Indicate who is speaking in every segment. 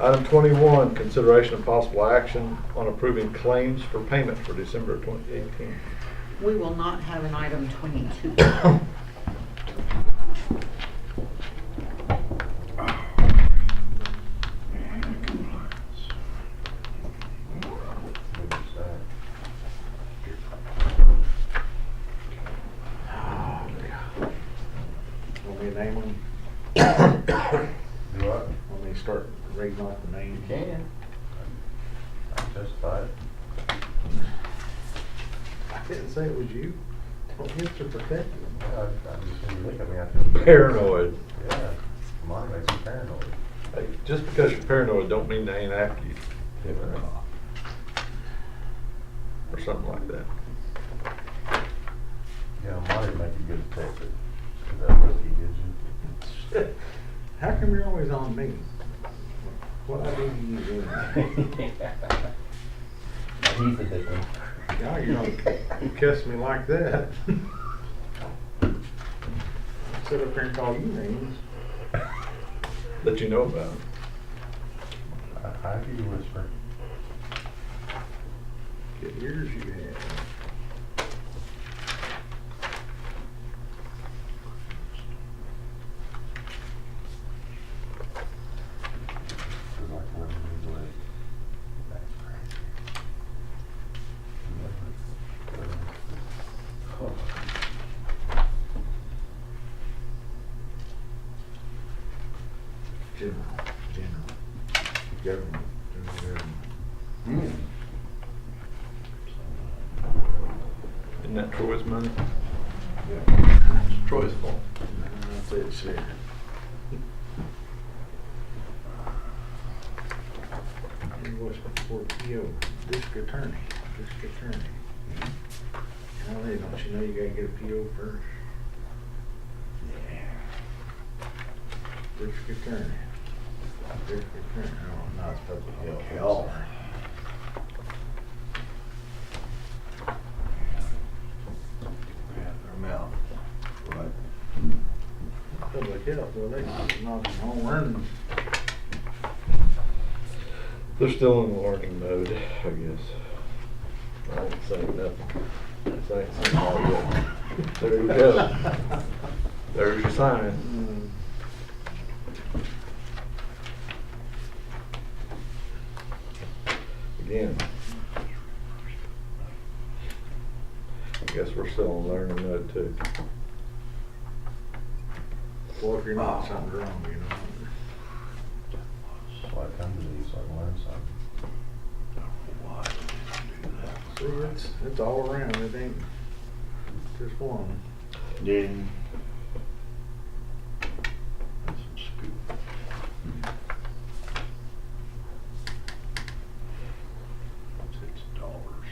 Speaker 1: Item twenty-one, consideration of possible action on approving claims for payment for December twenty eighteen.
Speaker 2: We will not have an item twenty-two.
Speaker 1: Want me to name them? Want me to start reading off the names?
Speaker 3: Can. I justified.
Speaker 1: I didn't say it was you. Don't hit to protect you.
Speaker 3: Look at me, I feel.
Speaker 1: Paranoid.
Speaker 3: Yeah, mine makes me paranoid.
Speaker 1: Hey, Just because you're paranoid, don't mean they ain't after you. Or something like that.
Speaker 3: Yeah, mine would make you good detective. Is that what he did you?
Speaker 1: How come you're always on me? What I do to you doing?
Speaker 3: He's a big one.
Speaker 1: Now you're gonna cuss me like that. Sit up here and call you names. That you know about.
Speaker 3: I, I hear you whisper.
Speaker 1: Get ears you have.
Speaker 3: It's like women who's like, that's crazy. You know, like, women.
Speaker 1: General, general. Government, government.
Speaker 3: Hmm.
Speaker 1: Isn't that Troy's money? It's Troy's fault. That's it, sir. Invoice for PO, district attorney, district attorney. Now they don't you know you gotta get a PO first? Yeah. District attorney. District attorney, oh, no, it's public health.
Speaker 3: Okay.
Speaker 1: Their mouth. Right. Public health, well, they not home running. They're still in learning mode, I guess. I ain't saying nothing. This ain't saying all yet. There you go. There's your sign. Again. I guess we're still in learning mode too. Well, if you're not, something's wrong, you know.
Speaker 3: Why come to these, so I can learn something.
Speaker 1: See, it's, it's all around, it ain't just one.
Speaker 4: Ding. That's some scoop. Six dollars.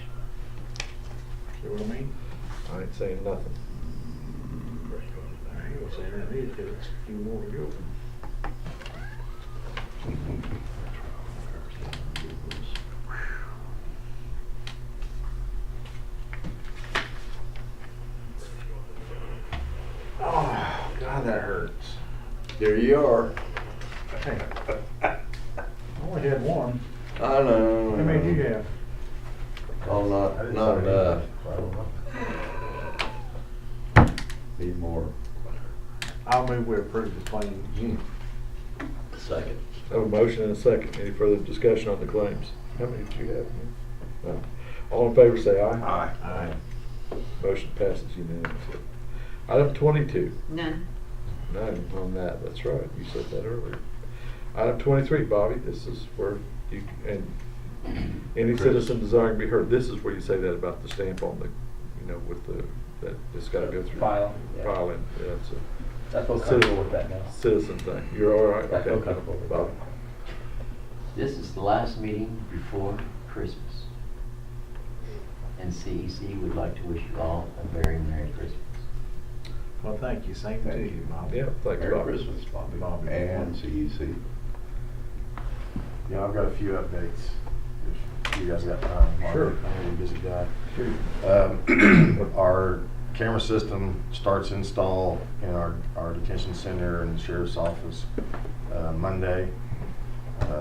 Speaker 1: See what I mean? I ain't saying nothing. I ain't gonna say nothing either, 'cause it's a few more to go. Oh, God, that hurts.
Speaker 4: There you are.
Speaker 1: Hey. I only had one.
Speaker 4: I know.
Speaker 1: How many do you have?
Speaker 4: Oh,
Speaker 3: I
Speaker 4: not,
Speaker 3: didn't
Speaker 4: not
Speaker 3: say
Speaker 4: enough.
Speaker 3: anything, so I don't know.
Speaker 4: Need more.
Speaker 1: I'll move we approve the claim.
Speaker 4: Second.
Speaker 1: I have a motion and a second. Any further discussion on the claims? How many do you have? No. All in favor, say aye.
Speaker 4: Aye.
Speaker 1: Motion passes unanimously. Item twenty-two,
Speaker 2: None.
Speaker 1: none on that, that's right, you said that earlier. Item twenty-three, Bobby, this is where you, and any citizen desiring to be heard, this is where you say that about the stamp on the, you know, with the, that it's gotta go through.
Speaker 5: File, yeah.
Speaker 1: File, in. yeah, it's a
Speaker 5: I feel comfortable with that now.
Speaker 1: citizen thing. You're all right?
Speaker 5: I feel
Speaker 1: Okay.
Speaker 5: comfortable with
Speaker 1: Bobby.
Speaker 5: that.
Speaker 6: This is the last meeting before Christmas. And CEC would like to wish you all a very Merry Christmas.
Speaker 7: Well, thank you, same to you, Bob.
Speaker 1: Yeah, thanks,
Speaker 4: Merry
Speaker 1: Bobby.
Speaker 4: Christmas, Bobby.
Speaker 7: Bobby.
Speaker 4: And CEC.
Speaker 3: Yeah, I've got a few updates. If you guys got time. Mark.
Speaker 1: Sure.
Speaker 3: I know you're a busy guy. Um, Our camera system starts install in our, our detention center and sheriff's office uh, Monday.